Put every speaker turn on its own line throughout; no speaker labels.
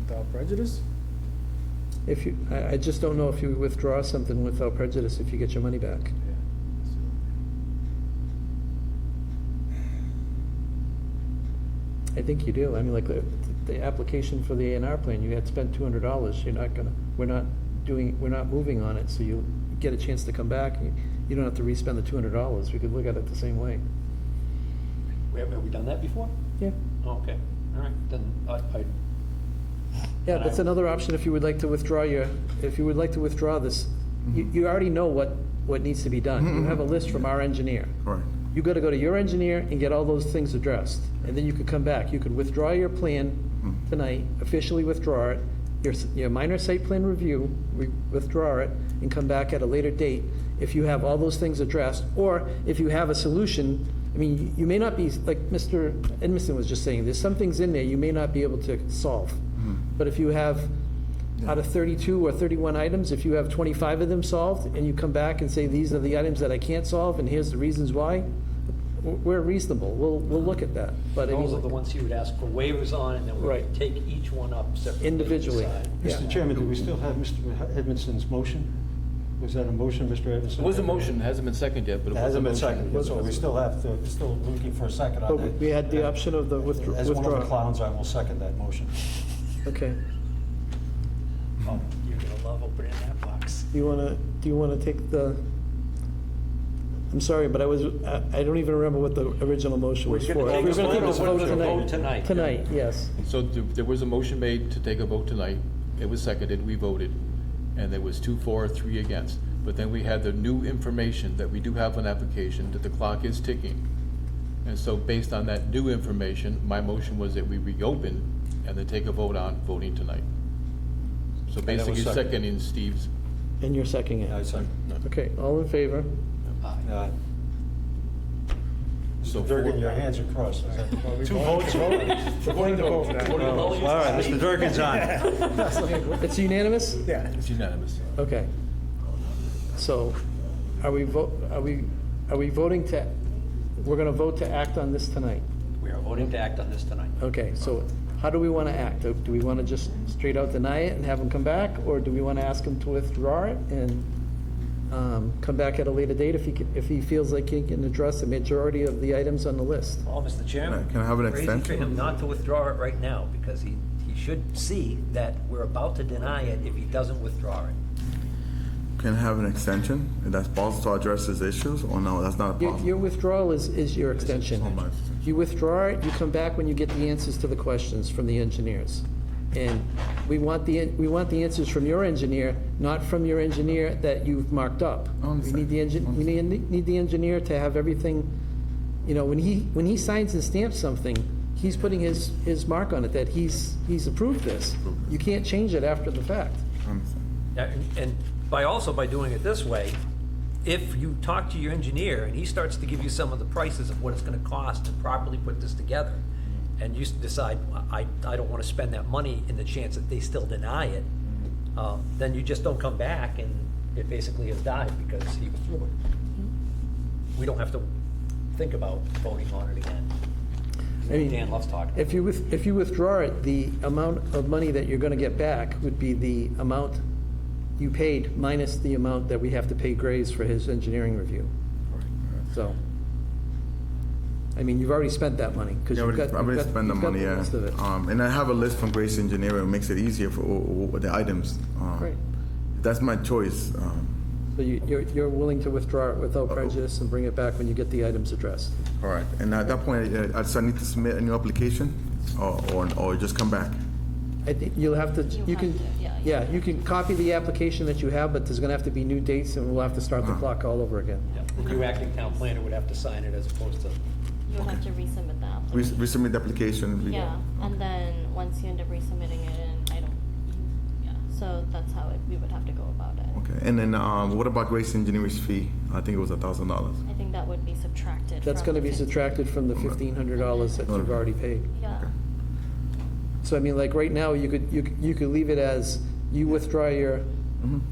without prejudice?
If you, I, I just don't know if you withdraw something without prejudice, if you get your money back. I think you do. I mean, like, the, the application for the A and R plan, you had spent two hundred dollars, you're not gonna, we're not doing, we're not moving on it, so you get a chance to come back, and you- you don't have to re-spend the two hundred dollars, we could look at it the same way.
Have, have we done that before?
Yeah.
Oh, okay, all right, then, I, I,
Yeah,
And
that's
I-
another option if you would like to withdraw your, if you would like to withdraw this. You, you already know what, what needs to be done. You have a list from our engineer.
Correct.
You gotta go to your engineer and get all those things addressed, and then you could come back. You could withdraw your plan tonight, officially withdraw it, your, s- your minor site plan review, we withdraw it, and come back at a later date if you have all those things addressed, or if you have a solution. I mean, you- you may not be, like Mr. Edmiston was just saying, there's some things in there you may not be able to solve. But if you have, out of 32 or 31 items, if you have 25 of them solved, and you come back and say, these are the items that I can't solve, and here's the reasons why, w- we're reasonable, we'll, we'll look at that, but I mean,
those are the ones you would ask for waivers on, and then we
Right.
would take each one up separately. and
Individually.
decide.
Yeah.
Mr. Chairman, do we still have Mr. Edmondson's motion? Was that a motion, Mr. Edmondson?
It was a motion, it hasn't been seconded yet,
It
but it was a
hasn't been
motion.
seconded, so we still have to, still looking for a second
but
on
we-
that.
we had the option of the withdraw.
As one of the clowns, I will second that motion.
Okay,
Oh, You're gonna love opening that box.
do you want to, do you want to take the, I'm sorry, but I was, I I don't even remember what the original motion was for.
gonna take
We're
a
gonna
vote on
this
whether to vote tonight.
Tonight, yes.
So th- there was a motion made to take a vote tonight, it was seconded, we voted, and there was two for, three against. But then we had the new information that we do have an application, that the clock is ticking. And so based on that new information, my motion was that we reopen and then take a vote on voting tonight. So
that was
basically
seconded.
seconding Steve's,
And you're seconding
I
it.
second.
Okay, all in favor?
Aye.
so. four-
Durgan, Uh, your hands are crossed. Is that-
Two votes. We're voting to vote now.
All right, Mr. Durkin's on.
It's unanimous?
Yeah.
It's unanimous.
Okay. So are we, vo- are we, are we voting to, we're going to vote to act on this tonight?
We are voting to act on this tonight.
Okay, so how do we want to act? Do we want to just straight out deny it and have them come back? Or do we want to ask him to withdraw it and um, come back at a later date if he, ca- if he feels like he can address the majority of the items on the list?
Well, Mr. Chairman.
Can I have an
it's crazy
extension?
for him not to withdraw it right now, because he, he should see that we're about to deny it if he doesn't withdraw it.
Can have an extension, if that's possible to address these issues, or no, that's not
Your your
possible?
withdrawal is, is your extension.
Oh, my.
You withdraw it, you come back when you get the answers to the questions from the engineers. And we want the, we want the answers from your engineer, not from your engineer that you've marked up.
I
We
understand.
need the engin, we need, need the engineer to have everything, you know, when he, when he signs and stamps something, he's putting his, his mark on it, that he's, he's approved this. You can't change it after the fact.
Now, and- And by also by doing it this way, if you talk to your engineer and he starts to give you some of the prices of what it's gonna cost to properly put this together, and you s- decide, I, I don't wanna spend that money in the chance that they still deny it, uh, then you just don't come back and it basically has died because he was through it. We don't have to think about voting on it again.
I mean,
Dan loves talking.
If you, with- if you withdraw it, the amount of money that you're going to get back would be the amount you paid minus the amount that we have to pay Graves for his engineering review. So, I mean, you've already spent that money because
Yeah,
you've
we
got, you've
probably
got
spend the
you've got
money,
the
yeah.
rest of it.
Um, And I have a list from Grace Engineering, it makes it easier for uh, uh, the items. Um,
Great.
That's my choice. um,
So you, you're, you're willing to withdraw it without prejudice and bring it back when you get the items addressed.
Correct. And at that point, uh, I just need to submit a new application, or, or- or just come back?
I think you'll have to, you
have
can,
to, yeah, you
yeah, you can copy the application that you have, but there's going to have to be new dates and we'll have to start the
Uh-huh.
clock all over again.
Yeah, The new acting town planner would have to sign it as opposed to
You'll have to resubmit the
We
application.
resubmit the application? we-
Yeah, and then once you end up resubmitting it, and I don't, yeah, so that's how it, we would have to go about it.
Okay, and then um, what about Grace Engineering's fee? I think it was a thousand dollars.
I think that would be subtracted.
That's
from
going to be
the 15.
subtracted from the $1,500 that you've already paid.
Yeah,
So I mean, like, right now, you could, you could- you could leave it as, you withdraw your,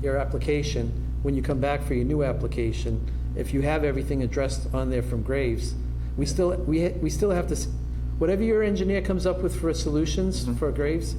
your application, when you come back for your new application, if you have everything addressed on there from Graves, we still, we, ha- we still have to, s- whatever your engineer comes up with for solutions for Graves,